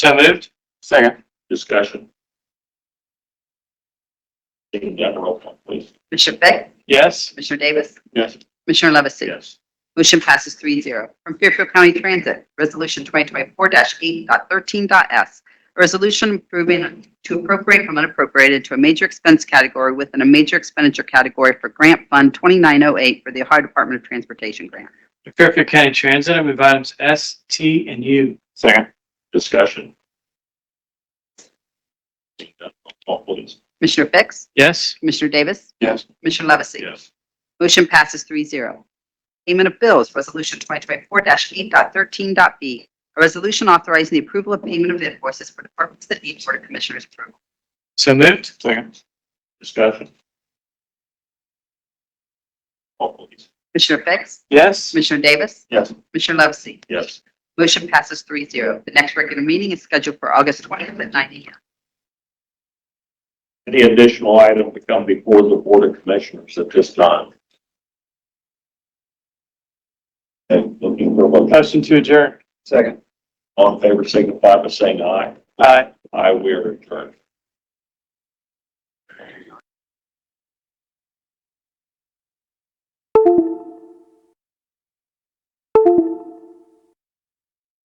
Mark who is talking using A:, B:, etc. A: So moved.
B: Second.
C: Discussion. Seeing none, roll call, please.
D: Commissioner Fix?
A: Yes.
D: Commissioner Davis?
C: Yes.
D: Commissioner Levesey?
C: Yes.
D: Motion passes three zero. From Fairfield County Transit, Resolution 2024-8.13.s. A resolution approving to appropriate from unappropriated to a major expense category within a major expenditure category for Grant Fund 2908 for the Ohio Department of Transportation Grant.
A: The Fairfield County Transit, I move items S, T, and U.
B: Second.
C: Discussion. Seeing none, roll call, please.
D: Commissioner Fix?
A: Yes.
D: Commissioner Davis?
B: Yes.
D: Commissioner Levesey?
C: Yes.
D: Motion passes three zero. Payment of bills, Resolution 2024-8.13.b. A resolution authorizing the approval of payment of invoices for departments that need Board of Commissioners approval.
A: So moved.
B: Second.
C: Discussion. Roll call, please.
D: Commissioner Fix?
A: Yes.
D: Commissioner Davis?
B: Yes.
D: Commissioner Levesey?
C: Yes.
D: Motion passes three zero. The next regular meeting is scheduled for August 20th at 9 a.m.
C: Any additional item to come before the Board of Commissioners at this time? And looking for a motion.
A: Motion to adjourn.
B: Second.
C: All in favor, signify by saying aye.
A: Aye.
C: Aye, we are adjourned.